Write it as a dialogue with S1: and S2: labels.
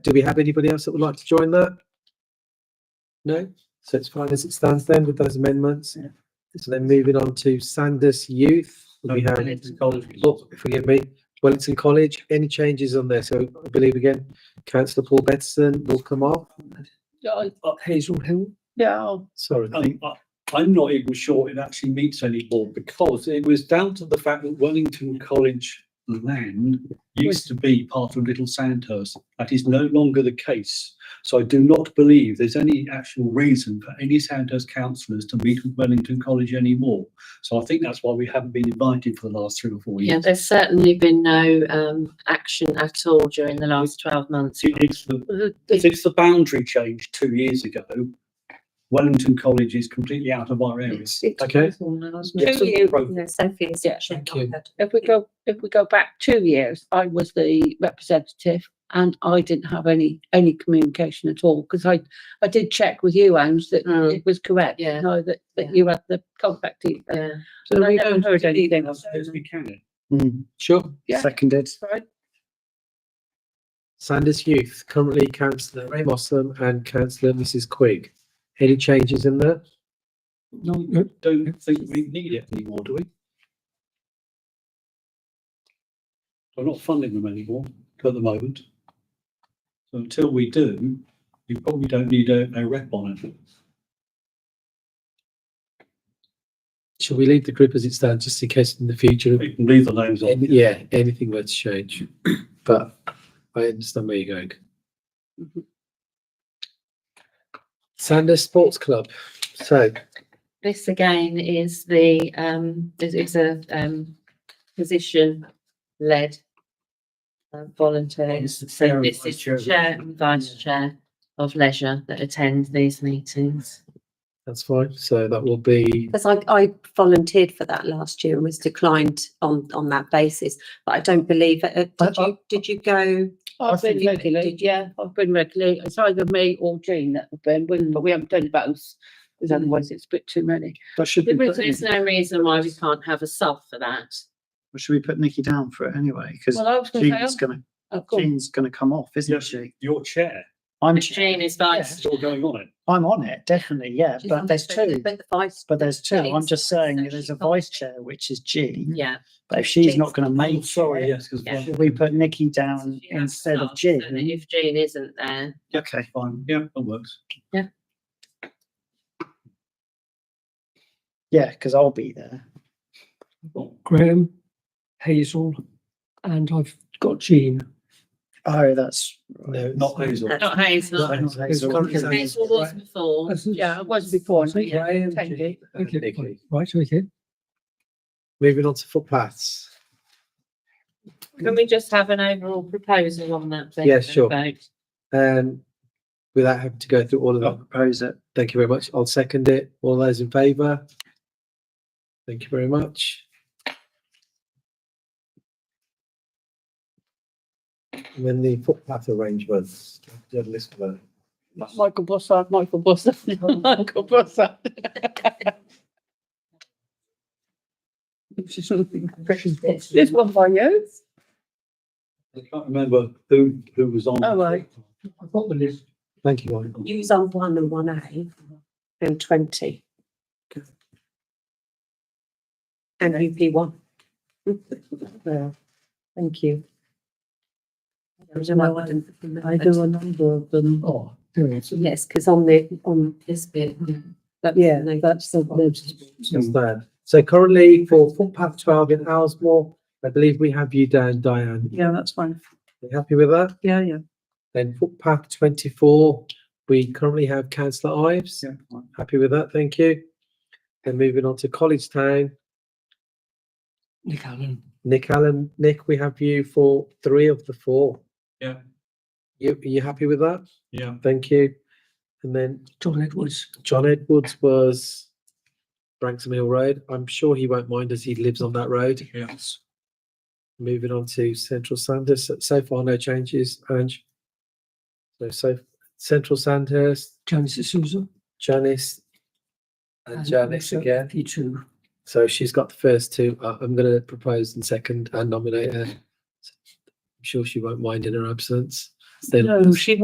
S1: do we have anybody else that would like to join that? No, so it's fine as it stands then with those amendments. So then moving on to Sanders Youth, we have, oh, forgive me, Wellington College, any changes on there? So I believe again, councillor Paul Bettison will come off.
S2: Yeah, I, I-
S1: Uh, Hazel Hill,
S2: yeah, I'll-
S1: sorry.
S3: Oh,
S2: I think I-
S3: I'm not even sure it actually meets anymore because it was down to the fact that Wellington College land used to be part of Little Sandhurst. That is no longer the case. So I do not believe there's any actual reason for any Sandhurst councillors to meet with Wellington College anymore. So I think that's why we haven't been invited for the last three or four
S4: Yeah,
S3: years.
S4: there's certainly been no um action at all during the last twelve months.
S3: It- It's the, since the boundary change two years ago, Wellington College is completely out of our area.
S1: Okay,
S3: Yeah, so-
S5: Two years, no, Sophie's
S2: Yeah.
S5: actually
S1: Thank you.
S5: not heard.
S2: if we go, if we go back two years, I was the representative and I didn't have any, any communication at all, because I, I did check with you, Ange, that
S4: Mm.
S2: it was correct.
S4: Yeah.
S2: No, that,
S4: Yeah.
S2: that you had the contact details.
S4: Yeah,
S2: So we
S5: I
S2: haven't heard anything.
S3: Yes, we can.
S1: sure.
S2: Yeah.
S1: Seconded.
S2: Right.
S1: Sanders Youth, currently councillor Ray Mossam and councillor Mrs Quigg. Any changes in there?
S3: No, don't think we need it anymore, do we? We're not funding them anymore at the moment. So until we do, we probably don't need a, a rep on it.
S1: Shall we leave the group as it stands, just in case in the future,
S3: We can leave the names
S1: any-
S3: on.
S1: yeah, anything were to change? But I understand where you're going.
S6: Mm-hmm.
S1: Sanders Sports Club, so
S4: this again is the um is is a um position led volunteers. So uh, this is chair and vice chair of leisure that attend these meetings.
S1: that's fine, so that will be,
S5: Because I, I volunteered for that last year and was declined on, on that basis, but I don't believe, it. Uh, did you, did you go?
S2: I've been regularly, yeah, I've been regularly. It's either me or Jean that have been, wouldn't- but we haven't done both, because otherwise it's a bit too many.
S7: But should we put,
S4: There's no reason why we can't have a sub for that.
S7: should we put Nikki down for it anyway? Because
S2: Well, I was gonna
S7: Jean's
S2: say,
S7: gonna,
S2: I've gone,
S7: Jean's gonna come off, isn't
S3: Yes.
S7: she?
S3: Your chair,
S7: I'm,
S4: Jean is vice.
S3: still going on it.
S7: I'm on it, definitely, yeah, but there's two.
S5: But the vice.
S7: But there's two. I'm just saying
S5: So
S7: there's
S5: she
S7: a
S5: can't-
S7: vice chair, which is Jean,
S4: Yeah.
S7: but if she's
S5: Jean's
S7: not gonna
S3: I'm
S7: make
S3: Oh, sorry,
S7: it,
S3: yes, because.
S4: Yeah.
S7: should we put Nikki
S4: So
S7: down
S4: she has
S7: instead of
S4: sub, so that
S7: Jean?
S4: If Jean isn't there,
S7: Okay.
S3: Fine, yeah, that works.
S7: Yeah, because I'll be there.
S6: Graham, Hazel, and I've got Jean.
S7: Oh, that's.
S1: no. it's-
S3: Not Hazel.
S4: not Hazel.
S7: Not Hazel.
S1: currently
S7: Because-
S1: Sanders-
S4: Hazel was before.
S6: That's-
S2: yeah, I was before,
S6: Is it
S2: yeah,
S1: Graham,
S2: thank you.
S1: and
S6: Okay,
S1: Nicky.
S6: Right, okay.
S1: Moving on to footpaths.
S4: Can we just have an overall proposal on that? then,
S1: Yeah, sure.
S4: about-
S1: Um, without having to go through all of
S7: I'll
S1: them,
S7: propose it.
S1: thank you very much. I'll second it. All those in favour? Thank you very much. And then the footpath arrangements. Do you have a list of that?
S2: Michael Bossard, Michael Bossard, Michael Bossard. This one by you?
S3: I can't remember who, who was on.
S2: Oh, right.
S6: I've got the list.
S1: Thank you, Mike.
S5: Use on one and one A and twenty. And UP one. Well, Thank you. I don't know, I didn't-
S6: a number of them. Oh, there it is.
S5: Yes, because on the, on,
S4: This bit.
S5: that's
S6: Yeah,
S5: the-
S6: that's the
S1: That's
S7: Mm.
S1: there. So currently for footpath twelve in Alsmore, I believe we have you down, Diane.
S2: Yeah, that's fine.
S1: Are you happy with that?
S2: Yeah, yeah.
S1: Then footpath twenty-four, we currently have councillor Ives.
S7: Yeah, fine.
S1: Happy with that, thank you. Then moving on to College Town,
S6: Nick Allen.
S1: Nick Allen, Nick, we have you for three of the four.
S3: Yeah.
S1: You, are you happy with that?
S3: Yeah,
S1: Thank you. And then
S6: John Edwards.
S1: John Edwards was Branksome Hill Road. I'm sure he won't mind as he lives on that road.
S3: yes.
S1: Moving on to Central Sandhurst, So- so far no changes, Ange. So, so Central Sandhurst,
S6: Janice Souza.
S1: Janice and Janice again.
S6: P two.
S1: So she's got the first two. Uh, I'm going to propose and second and nominate her. I'm sure she won't mind in her absence. They-
S2: No, Oh, she